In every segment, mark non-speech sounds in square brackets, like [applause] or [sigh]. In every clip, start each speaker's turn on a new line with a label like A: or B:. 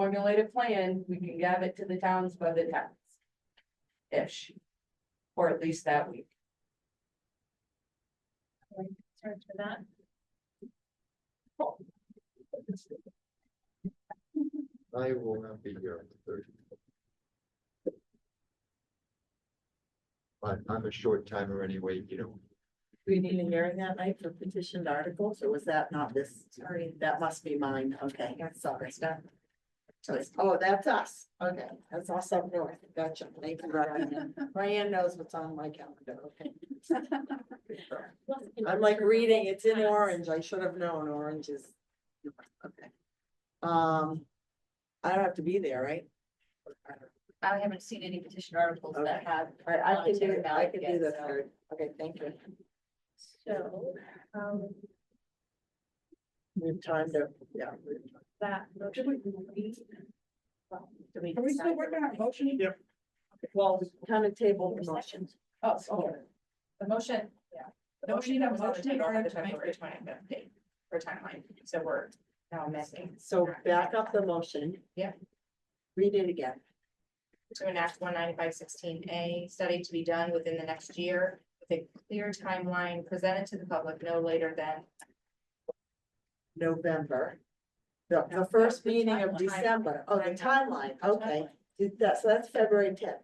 A: formulate a plan, we can give it to the towns by the tenth. Ish. Or at least that week.
B: Sorry for that.
C: I will not be here on the thirtieth. But I'm a short timer anyway, you know,
D: Do we need a hearing that night for petitioned articles, or was that not this, sorry, that must be mine, okay, sorry. So it's- Oh, that's us, okay, that's us up north, gotcha, thank you, Ryan, Ryan knows what's on my calendar, okay. I'm like reading, it's in orange, I should have known, orange is. Okay. Um, I don't have to be there, right?
B: I haven't seen any petition articles that
D: Okay.
B: have.
D: I, I can do,
B: Voluntary
D: it. I
B: ballot
D: can do
B: yet,
D: the
B: so-
D: third, okay, thank you.
B: So, um,
D: We have time to, yeah. we have time.
B: that.
D: Are we still working on motion? Yep. Well, kind of table the motion.
E: Oh, okay. The motion.
B: Yeah.
E: The motion that was on the
A: Motion
E: table
A: on
E: at
A: the
E: the February
A: February
E: twenty-fifth date or timeline, so we're now missing.
D: So back up the motion.
E: Yeah.
D: Read it again.
E: To enact one ninety-five sixteen A study to be done within the next year with a clear timeline presented to the public no later than.
D: November. The, the first meeting of December, oh, the timeline, okay, Did that, so that's February tenth.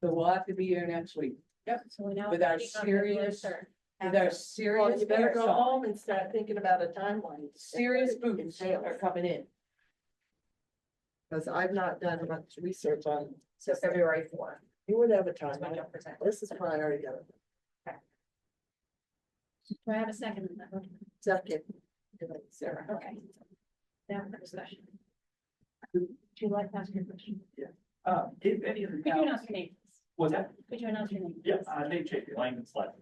A: So we'll have to be here next week.
B: So we now.
A: With our
B: meeting on February
A: serious-
B: third.
A: With our
D: Well,
A: serious,
D: you better go
A: bears on,
D: home and start thinking about a timeline.
A: serious boots are coming in.
D: Cause I've not done much research on,
E: So February fourth.
D: you would have a
E: is when
D: timeline,
E: you'll present.
D: this is priority, though.
B: Do I have a second? on that one?
D: second. Sarah.
B: Okay. Now for discussion.
D: Mm-hmm.
B: Do you like to ask your question?
F: Uh, if any of the
B: Could you
F: towns,
B: announce your name?
F: was that,
B: Could you announce your name?
F: yeah, uh, Dave Chapin, Langdon Select.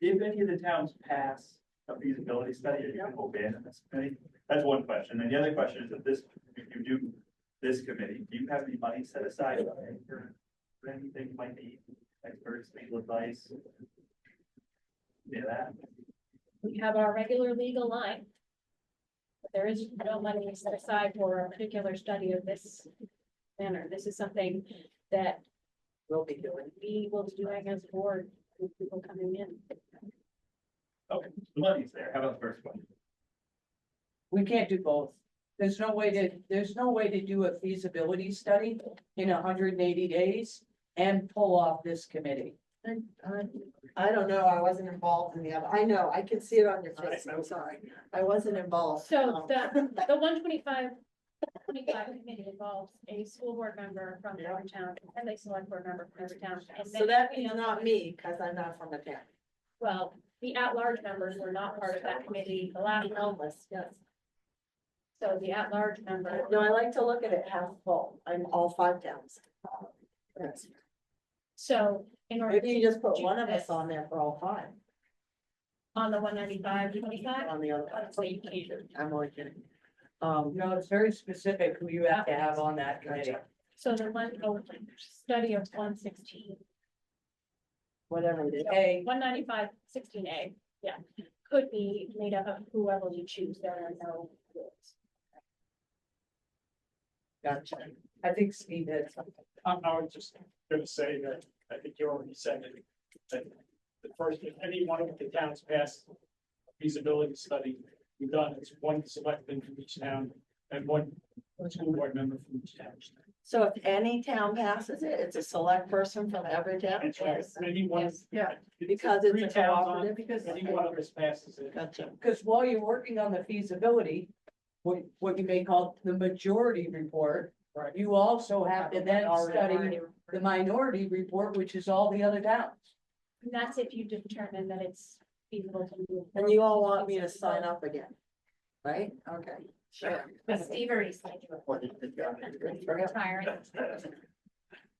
F: If any of the towns pass a feasibility study, are you gonna abandon this committee? That's one question. And the other question is if this, if you do this committee, do you have any money set aside for for anything you might need, experts, legal advice? Yeah, that.
B: We have our regular legal line. But There is no money set aside for a particular study of this manner. This is something that
D: We'll be doing.
B: we will be doing as a board with people coming in.
F: Okay, the money's there. How about the first one?
A: We can't do both. There's no way to, there's no way to do a feasibility study in hundred and eighty days and pull off this committee.
D: I- I don't know, I wasn't involved in the other, I know, I can see it on your face, I'm sorry, I wasn't involved.
B: So
D: um, [laughs]
B: the, the one twenty-five, twenty-five committee involves a school board member from every town and a select board member from every town. and
D: So
B: then
D: that
B: we
D: means
B: have-
D: not me, because I'm not from the town.
B: Well, the at-large members were not part of that committee, the last,
D: Homeless, yes.
B: so the at-large member.
D: No, I like to look at it half full, I'm all five towns. Yes.
B: So in order
D: Maybe you
B: to,
D: just put one of us on there for all five,
B: on the one ninety-five, twenty-five,
D: on the other.
B: So you can't.
D: I'm only kidding. Um,
A: No, it's very specific who you have to have on that committee.
B: so the one, oh, study of one sixteen,
D: whatever it is,
A: A,
B: one ninety-five, sixteen A, yeah. Could be made up of whoever you choose, there are no rules.
D: gotcha.
A: I think Steve had something.
G: I'm, I was just gonna say that, I think you already said it, that the first, if any one of the towns passed a feasibility study, we've done, it's one selectman from each town and one school board member from each town.
D: So if any town passes it, it's a select person from every town?
G: That's right, any one, yeah.
D: Because it's
G: Three
D: a
G: towns on,
D: cooperative, because.
G: Any one of us passes it.
D: Gotcha.
A: Because while you're working on the feasibility, what, what you may call the majority report,
G: Right.
A: you also have to then study
D: Already-
A: the minority report, which is all the other towns.
B: And that's if you determine that it's feasible to move.
D: And you all want me to sign up again, right? Okay, sure.
E: But Steve already signed you up.
C: what did the guy do?
E: Retiring.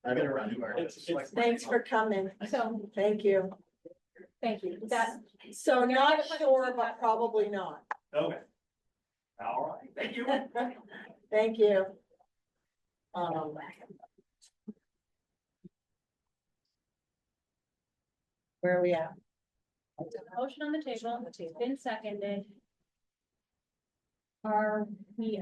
C: I've been around you.
G: It's- it's-
D: Thanks for coming.
B: So,
D: Thank you.
B: thank you, that,
D: So not sure, but probably not.
F: Okay. All right, thank you.
C: [laughs]
D: Thank you. Um. Where are we at?
B: Motion on the table, it's been seconded. Are we